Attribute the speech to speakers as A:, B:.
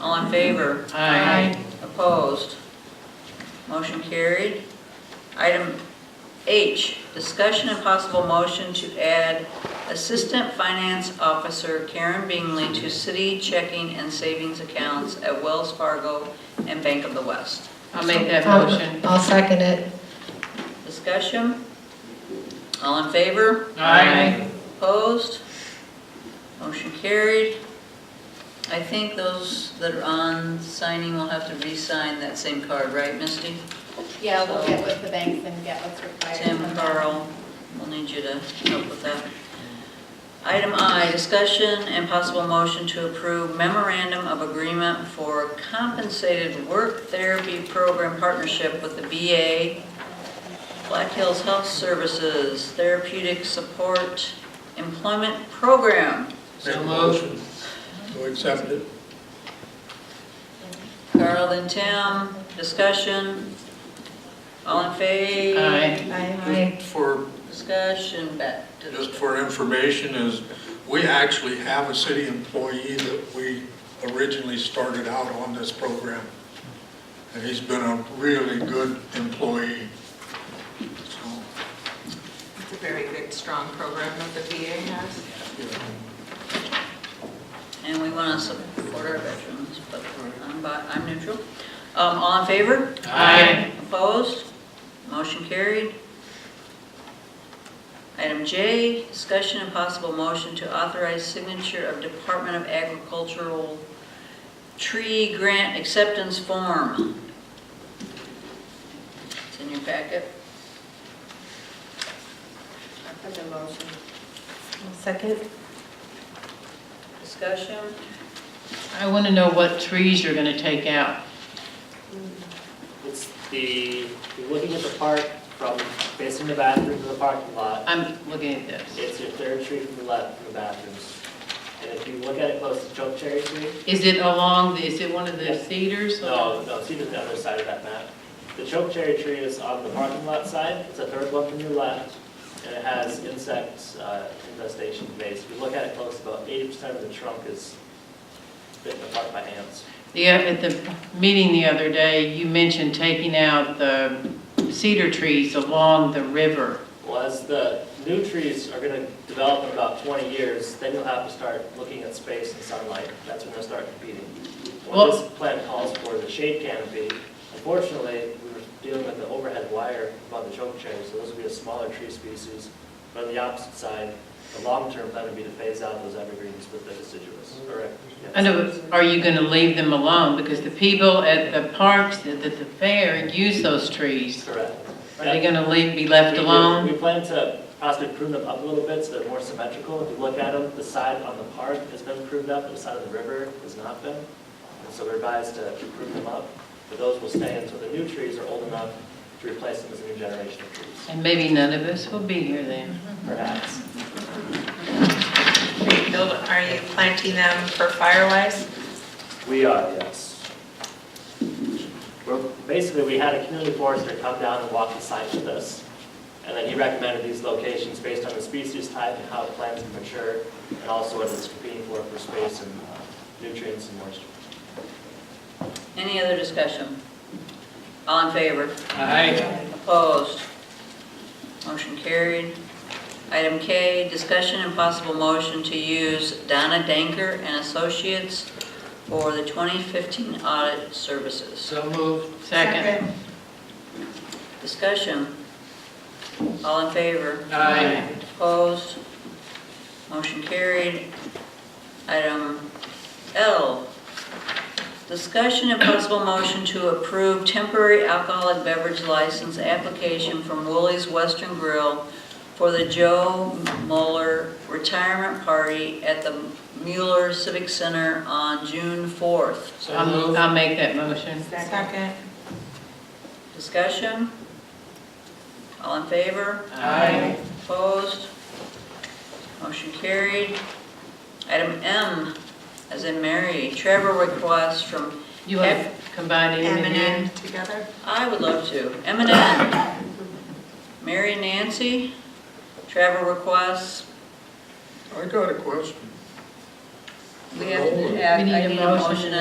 A: All in favor?
B: Aye.
A: Opposed? Motion carried. Item H, discussion and possible motion to add Assistant Finance Officer Karen Bingley to city checking and savings accounts at Wells Fargo and Bank of the West.
B: I'll make that
C: I'll-
B: motion.
C: I'll second it.
A: Discussion? All in favor?
B: Aye.
A: Opposed? Motion carried. I think those that are on signing will have to re-sign that same card, right, Misty?
D: Yeah, we'll get with the banks and get what's required.
A: Tim,
D: from them.
A: Carl, we'll need you to help with that. Item I, discussion and possible motion to approve memorandum of agreement for compensated work therapy program partnership with the VA, Black Hills Health Services Therapeutic Support Employment Program.
B: So
E: Make a
B: moved.
E: motion to accept it.
A: Carl and Tim, discussion. All in favor?
B: Aye.
C: Aye.
E: Just for,
A: Discussion, back to
E: just
A: the,
E: for information is, we actually have a city employee that we originally started out on this program. And he's been a really good employee. So,
F: It's a very good, strong program that the VA has.
E: you know,
A: and we want to support our veterans, but I'm, bi- I'm neutral. Um, all in favor?
B: Aye.
A: Opposed? Motion carried. Item J, discussion and possible motion to authorize signature of Department of Agricultural Tree Grant Acceptance Form. It's in your packet.
D: For the motion.
C: I'll Second?
A: Discussion?
B: I want to know what trees you're going to take out.
G: It's the, you're looking at the park from, facing the bathroom to the parking lot.
B: I'm looking at this.
G: It's your third tree from the left from the bathrooms. And if you look at it close, it's choke cherry tree.
B: Is it along, the? is it one of the
G: Yeah.
B: cedars? or-
G: No, no, see the other side of that map. The choke cherry tree is on the parking lot side. It's the third one from your left. And it has insect uh, infestation base. If you look at it close, about eighty percent of the trunk is bitten apart by hands.
B: The, uh, at the meeting the other day, you mentioned taking out the cedar trees along the river.
G: Well, as the new trees are gonna develop in about twenty years, then you'll have to start looking at space and sunlight, that's when they'll start competing. What this plan calls for is a shade canopy, unfortunately, we were dealing with the overhead wire above the choke cherry, so those would be a smaller tree species. But on the opposite side, the long-term plan would be to phase out those evergreens with the deciduous, correct?
B: I know, are you going to leave them alone? Because the people at the parks, at the fair, use those trees.
G: Correct.
B: Are they going to leave, be left
G: We- we-
B: alone?
G: We plan to possibly prune them up a little bit so they're more symmetrical. If you look at them, the side on the park has been pruned up, and the side of the river has not been. And so we're advised to prune them up, but those will stay until the new trees are old enough to replace them as a new generation of trees,
B: And maybe none of us will be here then.
G: perhaps.
H: Bill, Are you planting them for Firewise?
G: We are, yes. We're, basically, we had a community forester come down and walk the site with us. And then he recommended these locations based on the species type and how the plants can mature, and also what it's competing for, for space and uh, nutrients and moisture.
A: Any other discussion? All in favor?
B: Aye.
A: Opposed? Motion carried. Item K, discussion and possible motion to use Donna Danker and Associates for the 2015 audit services.
B: So moved. Second.
A: Discussion. All in favor?
B: Aye.
A: Opposed? Motion carried. Item L, discussion and possible motion to approve temporary alcoholic beverage license application from Woolies Western Grill for the Joe Mueller Retirement Party at the Mueller Civic Center on June 4th.
B: I'll, I'll make that motion.
H: Second.
A: Discussion? All in favor?
B: Aye.
A: Opposed? Motion carried. Item M, as in Mary, Trevor requests from,
B: You want to combine it
H: M
B: in
H: and
B: again?
H: N together?
A: I would love to, M and N. Mary and Nancy, Trevor requests,
E: I got a question.
A: we have
E: Roll it.
A: to have,
B: We need
A: I
B: a
A: need a
B: motion.
A: motion